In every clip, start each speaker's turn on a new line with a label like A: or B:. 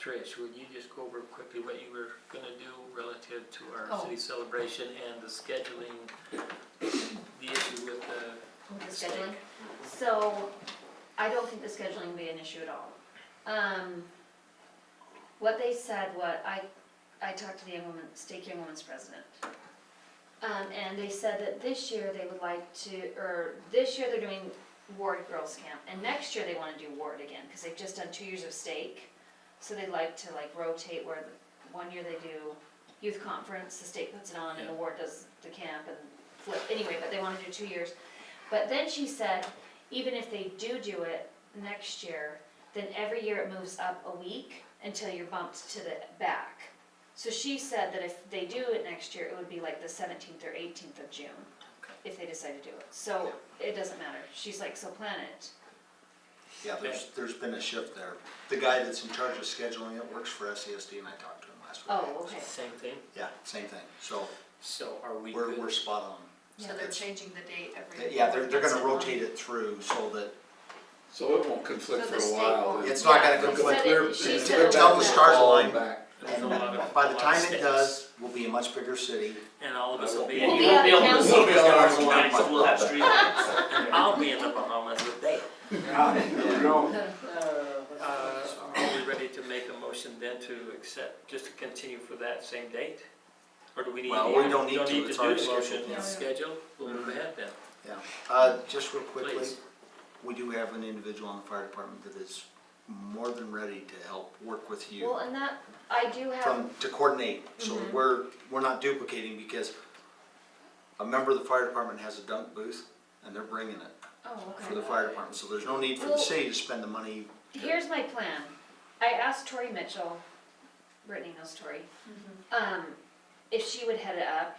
A: Trish, would you just go over quickly what you were gonna do relative to our
B: Oh.
A: city celebration and the scheduling, the issue with the
B: With the scheduling, so I don't think the scheduling will be an issue at all. Um, what they said, what, I, I talked to the young woman, Stake Young Women's president. Um, and they said that this year they would like to, or this year they're doing Ward Girls Camp, and next year they wanna do Ward again, cause they've just done two years of stake. So they'd like to like rotate where, the- one year they do youth conference, the state puts it on, and the
A: Yeah.
B: ward does the camp and flip, anyway, but they wanna do two years. But then she said, even if they do do it next year, then every year it moves up a week until you're bumped to the back. So she said that if they do it next year, it would be like the seventeenth or eighteenth of June, if they decide to do it. So it doesn't matter. She's like, so plan it.
C: Yeah, there's, there's been a shift there. The guy that's in charge of scheduling it works for SESD and I talked to him last week.
B: Oh, okay.
A: same thing?
C: Yeah, same thing. So
A: So are we
C: we're, we're
A: good?
C: spot on.
D: So they're changing the date every.
C: Yeah, they're, they're
D: once
C: gonna
D: a month.
C: rotate it through so that,
E: So it won't conflict
D: So
E: for
D: the
E: a
D: state
E: while.
D: won't-
C: It's not gonna
B: Yeah,
C: go
B: she said
E: clear-
B: it- She
E: it's
B: said
E: clear
B: it
C: down
E: down
C: the
B: was
E: to
B: that.
C: stars
E: fall
C: align.
E: back.
A: There's a lot of-
C: by
A: a
C: the
A: lot of
C: time it
A: steps.
C: does, we'll be a much bigger city.
A: And all of us will be.
B: We'll
A: in
B: be out of
A: You'll
B: town.
A: be
E: We'll be out
A: in
E: of town.
A: Bahamas, and we'll have streetlights. And I'll be in the Bahamas with them. Uh, Are we ready to make a motion then to accept, just to continue for that same date? Or do we need?
C: Well, we don't need to, it's already
A: do the motion,
C: scheduled.
A: it's scheduled, we'll
C: Mm-hmm.
A: move ahead then,
C: Yeah. Uh, just real quickly,
A: please.
C: we do have an individual in the fire department that is more than ready to help work with you.
B: Well, and that, I do have,
C: from, to coordinate, so we're, we're not duplicating, because a member of the fire department has a dunk booth, and they're bringing it
B: oh,
C: for the
B: okay.
C: fire department, so there's no need for the city to spend the money.
B: Here's my plan. I asked Tori Mitchell, Brittany knows Tori, um, if she would head it up,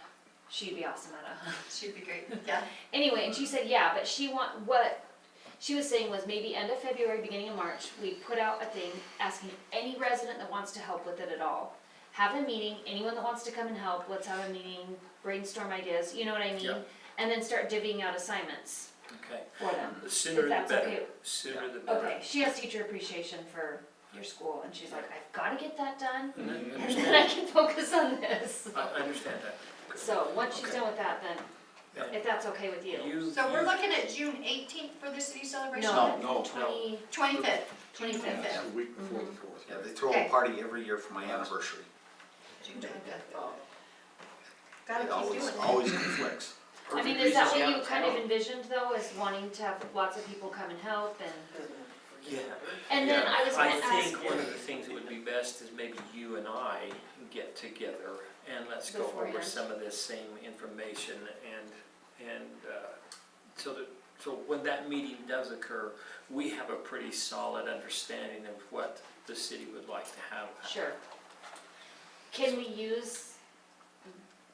B: she'd be awesome at it.
D: She'd be great, yeah.
B: Anyway, and she said, yeah, but she want, what she was saying was maybe end of February, beginning of March, we put out a thing asking any resident that wants to help with it at all. Have a meeting, anyone that wants to come and help, let's have a meeting, brainstorm ideas, you know what I mean?
A: Yeah.
B: And then start divvying out assignments
A: okay?
B: for them.
A: The sooner
B: If
A: the
B: that's
A: better,
B: okay.
A: sooner the better.
B: Okay, she has teacher appreciation for your school and she's like, I've gotta get that done
A: And then-
B: and then I can focus on this.
A: I I understand that.
B: So, once she's
A: Okay.
B: done with that, then,
A: Yeah.
B: if that's okay with you.
A: You-
D: So we're
A: you-
D: looking at June eighteenth for the city celebration?
B: No,
E: No.
B: twenty,
D: Twenty-fifth.
B: twenty-fifth.
E: The week before the fourth.
C: Yeah,
E: right?
C: they throw a
D: Okay.
C: party every year for my anniversary.
D: June twenty-fifth.
C: It
D: Gotta keep
C: always,
D: doing it.
C: always conflicts.
B: I mean, is that what you kind of envisioned though, is wanting to have lots of people come and help and,
A: Yeah.
B: and then I was gonna
A: I
B: ask,
A: think one of the things that would be best is maybe you and I get together and let's go over
B: Beforehand.
A: some of this same information and, and, uh, so that, so when that meeting does occur, we have a pretty solid understanding of what the city would like to have.
B: sure. Can we use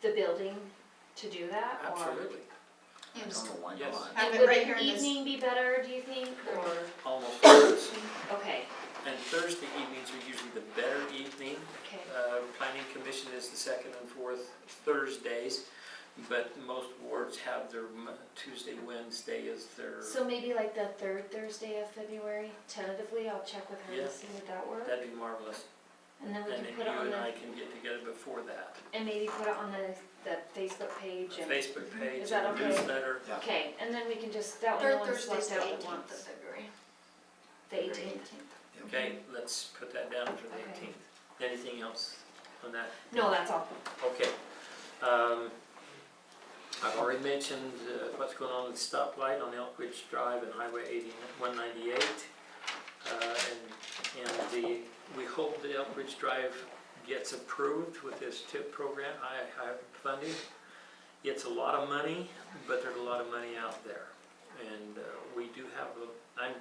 B: the building to do that or?
A: Absolutely,
C: I don't know why
A: Yes.
C: not.
D: Have
B: And
D: it
B: would
D: right here
B: an
D: in this-
B: evening be better, do you think, or,
A: almost always.
B: okay,
A: And Thursday evenings are usually the better evening.
B: okay,
A: Uh, Planning Commission is the second and fourth Thursdays, but most wards have their Mo- Tuesday, Wednesday is their,
B: so maybe like the third Thursday of February, tentatively, I'll check with her
A: Yeah.
B: and see would that work?
A: that'd be marvelous.
B: And then we
A: And
B: can
A: then
B: put it
A: you
B: on
A: and
B: the,
A: I can get together before that.
B: and maybe put it on the, the Facebook page and,
A: Facebook page,
B: Is that okay?
A: newsletter.
C: Yeah.
B: okay, and then we can just, that one,
D: Third
B: no one's
D: Thursday's
B: left
D: the
B: out at once.
D: eighteenth of February.
B: The eighteenth.
A: Okay, let's put that down for the
B: Okay.
A: 18th. Anything else on that?
B: No, that's all.
A: Okay. Um, I've already mentioned uh, what's going on with stoplight on Elk Ridge Drive and Highway 80 198. Uh, And, and the, we hope that Elk Ridge Drive gets approved with this TIP program, I have funding. It's a lot of money, but there's a lot of money out there. And uh, we do have, a- I'm,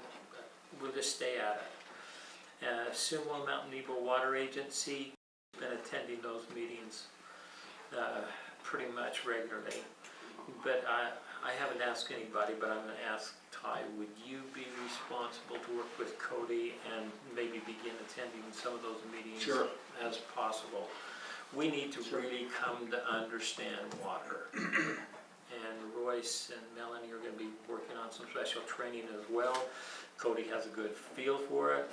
A: we'll just stay at it. Uh, Sumo Mountain Nebo Water Agency, been attending those meetings uh, pretty much regularly. But I, I haven't asked anybody, but I'm gonna ask Ty, would you be responsible to work with Cody and maybe begin attending some of those meetings?
E: Sure.
A: As possible. We need to
E: Sure.
A: really come to understand water. And Royce and Melanie are gonna be working on some special training as well. Cody has a good feel for it,